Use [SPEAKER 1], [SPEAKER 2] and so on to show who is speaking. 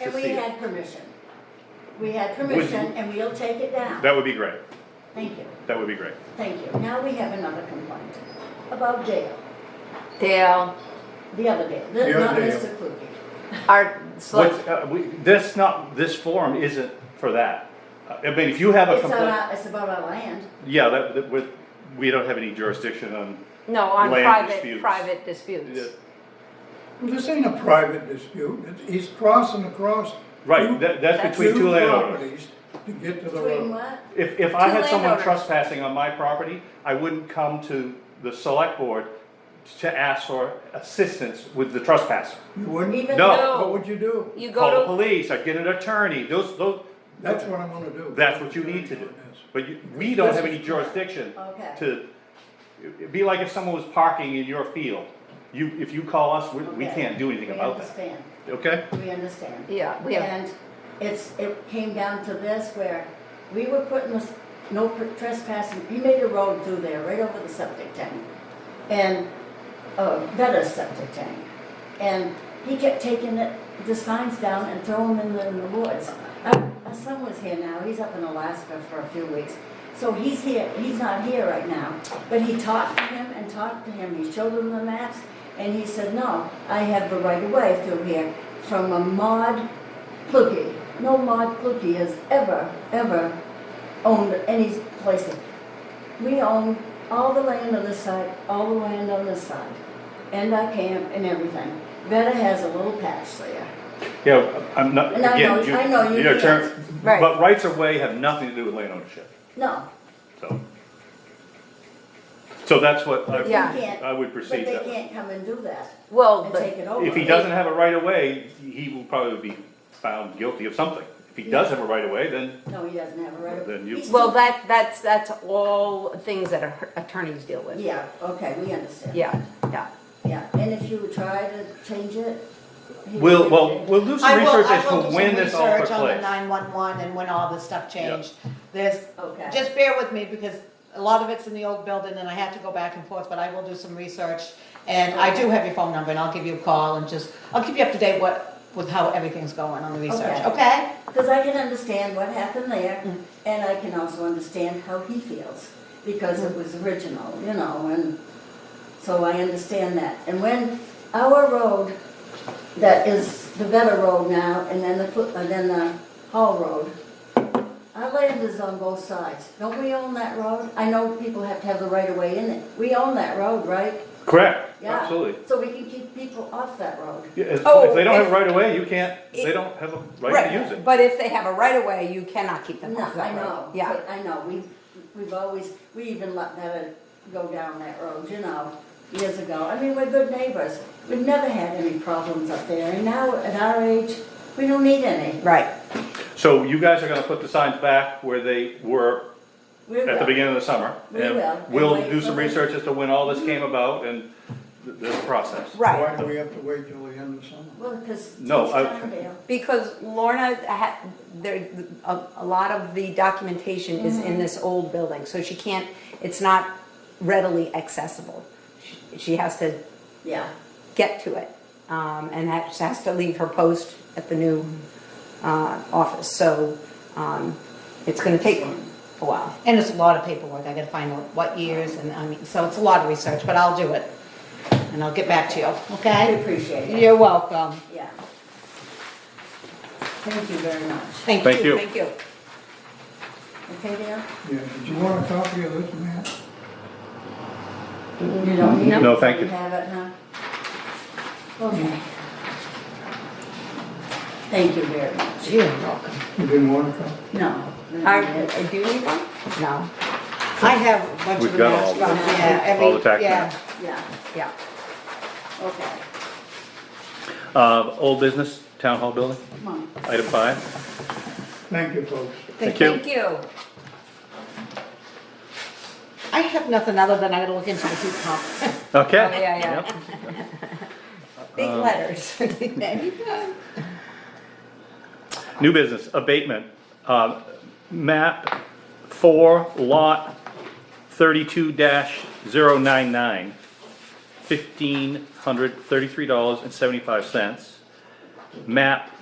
[SPEAKER 1] And we
[SPEAKER 2] proceed.
[SPEAKER 1] had permission. We had permission and we'll take it down.
[SPEAKER 2] That would be great.
[SPEAKER 1] Thank you,
[SPEAKER 2] That would be great.
[SPEAKER 1] thank you. Now we have another complaint about Dale,
[SPEAKER 3] Dale,
[SPEAKER 1] the other Dale,
[SPEAKER 4] The other
[SPEAKER 1] not
[SPEAKER 4] Dale.
[SPEAKER 1] Mr. Kluge.
[SPEAKER 3] our, select-
[SPEAKER 2] What's, uh, we, this not, this forum isn't for that. Uh, I mean, if you have a
[SPEAKER 1] It's on
[SPEAKER 2] complaint,
[SPEAKER 1] our, it's about our land.
[SPEAKER 2] yeah, that, that, with, we don't have any jurisdiction on,
[SPEAKER 3] no, on
[SPEAKER 2] Land
[SPEAKER 3] private,
[SPEAKER 2] disputes.
[SPEAKER 3] private disputes.
[SPEAKER 4] This ain't a private dispute, It's- he's crossing across. two-
[SPEAKER 2] right, that, that's between two landowners.
[SPEAKER 4] properties To get to the
[SPEAKER 1] Between
[SPEAKER 4] road.
[SPEAKER 1] what?
[SPEAKER 2] If, if I
[SPEAKER 3] Two
[SPEAKER 2] had someone
[SPEAKER 3] landowners.
[SPEAKER 2] trespassing on my property, I wouldn't come to the select board to ask for assistance with the trespasser.
[SPEAKER 4] You wouldn't,
[SPEAKER 1] Even
[SPEAKER 2] No.
[SPEAKER 1] though-
[SPEAKER 4] what would you do?
[SPEAKER 3] You
[SPEAKER 2] Call the
[SPEAKER 3] go
[SPEAKER 2] police, I'd get an attorney, those, those,
[SPEAKER 4] That's what I'm gonna do.
[SPEAKER 2] that's what you need to do. But you, we don't have any jurisdiction
[SPEAKER 1] Okay.
[SPEAKER 2] to, it'd be like if someone was parking in your field. You, if you call us, we, we
[SPEAKER 1] Okay.
[SPEAKER 2] can't do anything
[SPEAKER 1] We
[SPEAKER 2] about that,
[SPEAKER 1] understand.
[SPEAKER 2] okay?
[SPEAKER 1] We understand.
[SPEAKER 3] to, yeah, we have,
[SPEAKER 1] And it's, it came down to this where we were putting this, no trespassing, he made a road through there, right over the septic tank. And, uh, Vetta's septic tank. And he kept taking it, the signs down and throwing them in the woods. Uh, My son was here now, he's up in Alaska for a few weeks. So he's here, he's not here right now, but he talked to him and talked to him, he showed him the maps. And he said, no, I have the right of way through here from a mod Kluge. No Maud Kluge has ever, ever owned any place. We own all the land on this side, all the land on this side, and our camp and everything. Vetta has a little patch there.
[SPEAKER 2] Yeah, I'm not,
[SPEAKER 1] And I know-
[SPEAKER 2] again, you,
[SPEAKER 1] I know you
[SPEAKER 2] you know, term,
[SPEAKER 1] can't.
[SPEAKER 3] Right.
[SPEAKER 2] but rights of way have nothing to do with land ownership,
[SPEAKER 1] No,
[SPEAKER 2] so. So that's what
[SPEAKER 1] but they
[SPEAKER 2] I,
[SPEAKER 3] Yeah.
[SPEAKER 1] can't.
[SPEAKER 2] I
[SPEAKER 1] But
[SPEAKER 2] would proceed
[SPEAKER 1] they
[SPEAKER 2] that way.
[SPEAKER 1] can't come and do that
[SPEAKER 3] well,
[SPEAKER 1] and take
[SPEAKER 3] but,
[SPEAKER 1] it over.
[SPEAKER 2] If he doesn't have a right of way, he will probably be found guilty of something. If he does have a right of way, then
[SPEAKER 1] No, he doesn't have a right. of-
[SPEAKER 2] Then you-
[SPEAKER 1] He's-
[SPEAKER 3] well, that, that's, that's all things that our attorneys deal with.
[SPEAKER 1] Yeah, okay, we understand.
[SPEAKER 3] Yeah, yeah.
[SPEAKER 1] Yeah, and if you try to change it. he
[SPEAKER 2] we'll,
[SPEAKER 1] will
[SPEAKER 2] well,
[SPEAKER 1] change it.
[SPEAKER 2] we'll do some
[SPEAKER 5] I will,
[SPEAKER 2] research
[SPEAKER 5] I
[SPEAKER 2] as
[SPEAKER 5] will do
[SPEAKER 2] to when
[SPEAKER 5] some
[SPEAKER 2] this all took
[SPEAKER 5] research on the
[SPEAKER 2] place.
[SPEAKER 5] nine-one-one and when all this stuff changed. This,
[SPEAKER 1] Okay.
[SPEAKER 5] just bear with me because a lot of it's in the old building and I had to go back and forth, but I will do some research. And I do have your phone number and I'll give you a call and just, I'll keep you up to date what, with how everything's going on the research,
[SPEAKER 1] Okay.
[SPEAKER 5] okay?
[SPEAKER 1] Because I can understand what happened there, and I can also understand how he feels, because it was original, you know, and so I understand that. And when our road, that is the better road now, and then the, Cl- and then the Hall Road, our land is on both sides. Don't we own that road? I know people have to have the right of way in it. We own that road, right?
[SPEAKER 2] Correct,
[SPEAKER 1] Yeah.
[SPEAKER 2] absolutely.
[SPEAKER 1] So we can keep people off that road.
[SPEAKER 2] Yeah, If
[SPEAKER 3] Oh,
[SPEAKER 2] if they don't have
[SPEAKER 3] if-
[SPEAKER 2] a right of way, you can't, they
[SPEAKER 3] It-
[SPEAKER 2] don't have a right to use it.
[SPEAKER 3] But if they have a right of way, you cannot keep them
[SPEAKER 1] No,
[SPEAKER 3] off
[SPEAKER 1] I
[SPEAKER 3] that
[SPEAKER 1] know.
[SPEAKER 3] road. Yeah,
[SPEAKER 1] but I know, we, we've always, we even let that go down that road, you know, years ago. I mean, we're good neighbors. We've never had any problems up there, and now at our age, we don't need any.
[SPEAKER 5] Right.
[SPEAKER 2] So you guys are gonna put the signs back where they were
[SPEAKER 1] We
[SPEAKER 2] at the
[SPEAKER 1] will.
[SPEAKER 2] beginning of the summer.
[SPEAKER 1] We
[SPEAKER 2] and
[SPEAKER 1] will, and
[SPEAKER 2] We'll
[SPEAKER 1] wait
[SPEAKER 2] do
[SPEAKER 1] for
[SPEAKER 2] some
[SPEAKER 1] the-
[SPEAKER 2] research as to when all this came about and th- this process.
[SPEAKER 3] right.
[SPEAKER 4] Why do we have to wait till the end of summer?
[SPEAKER 1] Well, because.
[SPEAKER 2] No, I-
[SPEAKER 3] Because Lorna had, there, a, a lot of the documentation is in this old building, so she can't, it's not readily accessible. She- She has to
[SPEAKER 1] Yeah,
[SPEAKER 3] get to it, um, and that she has to leave her post at the new, uh, office, so, um, it's gonna take a while.
[SPEAKER 5] And it's a lot of paperwork, I gotta find out what years and, I mean, so it's a lot of research, but I'll do it. And I'll get back to you,
[SPEAKER 1] I
[SPEAKER 5] okay?
[SPEAKER 1] appreciate it,
[SPEAKER 5] You're welcome,
[SPEAKER 1] yeah. Thank you very much.
[SPEAKER 5] thank you.
[SPEAKER 2] Thank you.
[SPEAKER 3] Thank you.
[SPEAKER 1] Okay, Dale?
[SPEAKER 4] Yeah, did you want a copy of this, Matt?
[SPEAKER 1] You don't need it?
[SPEAKER 2] No, thank you.
[SPEAKER 1] have it, huh? Okay. Thank you very much.
[SPEAKER 5] You're welcome.
[SPEAKER 4] You didn't want a copy?
[SPEAKER 1] No.
[SPEAKER 3] I,
[SPEAKER 1] no,
[SPEAKER 3] I do need one? No,
[SPEAKER 5] I have a bunch
[SPEAKER 2] We've
[SPEAKER 5] of the
[SPEAKER 2] got
[SPEAKER 5] maps
[SPEAKER 2] all
[SPEAKER 5] from,
[SPEAKER 1] the-
[SPEAKER 5] yeah,
[SPEAKER 2] all the tax
[SPEAKER 5] every, yeah.
[SPEAKER 2] maps.
[SPEAKER 1] Yeah,
[SPEAKER 3] yeah.
[SPEAKER 1] okay,
[SPEAKER 2] Uh, old business, town hall building,
[SPEAKER 1] come on.
[SPEAKER 2] item five.
[SPEAKER 4] Thank you, folks.
[SPEAKER 2] Thank you.
[SPEAKER 3] Thank you.
[SPEAKER 5] I have nothing other than I gotta look into the heat pump.
[SPEAKER 2] Okay.
[SPEAKER 3] Oh, yeah, yeah.
[SPEAKER 2] Yep.
[SPEAKER 3] Big letters.
[SPEAKER 2] New business, abatement, um, map four, lot thirty-two 99 zero nine nine, fifteen hundred thirty-three dollars and seventy-five cents. Map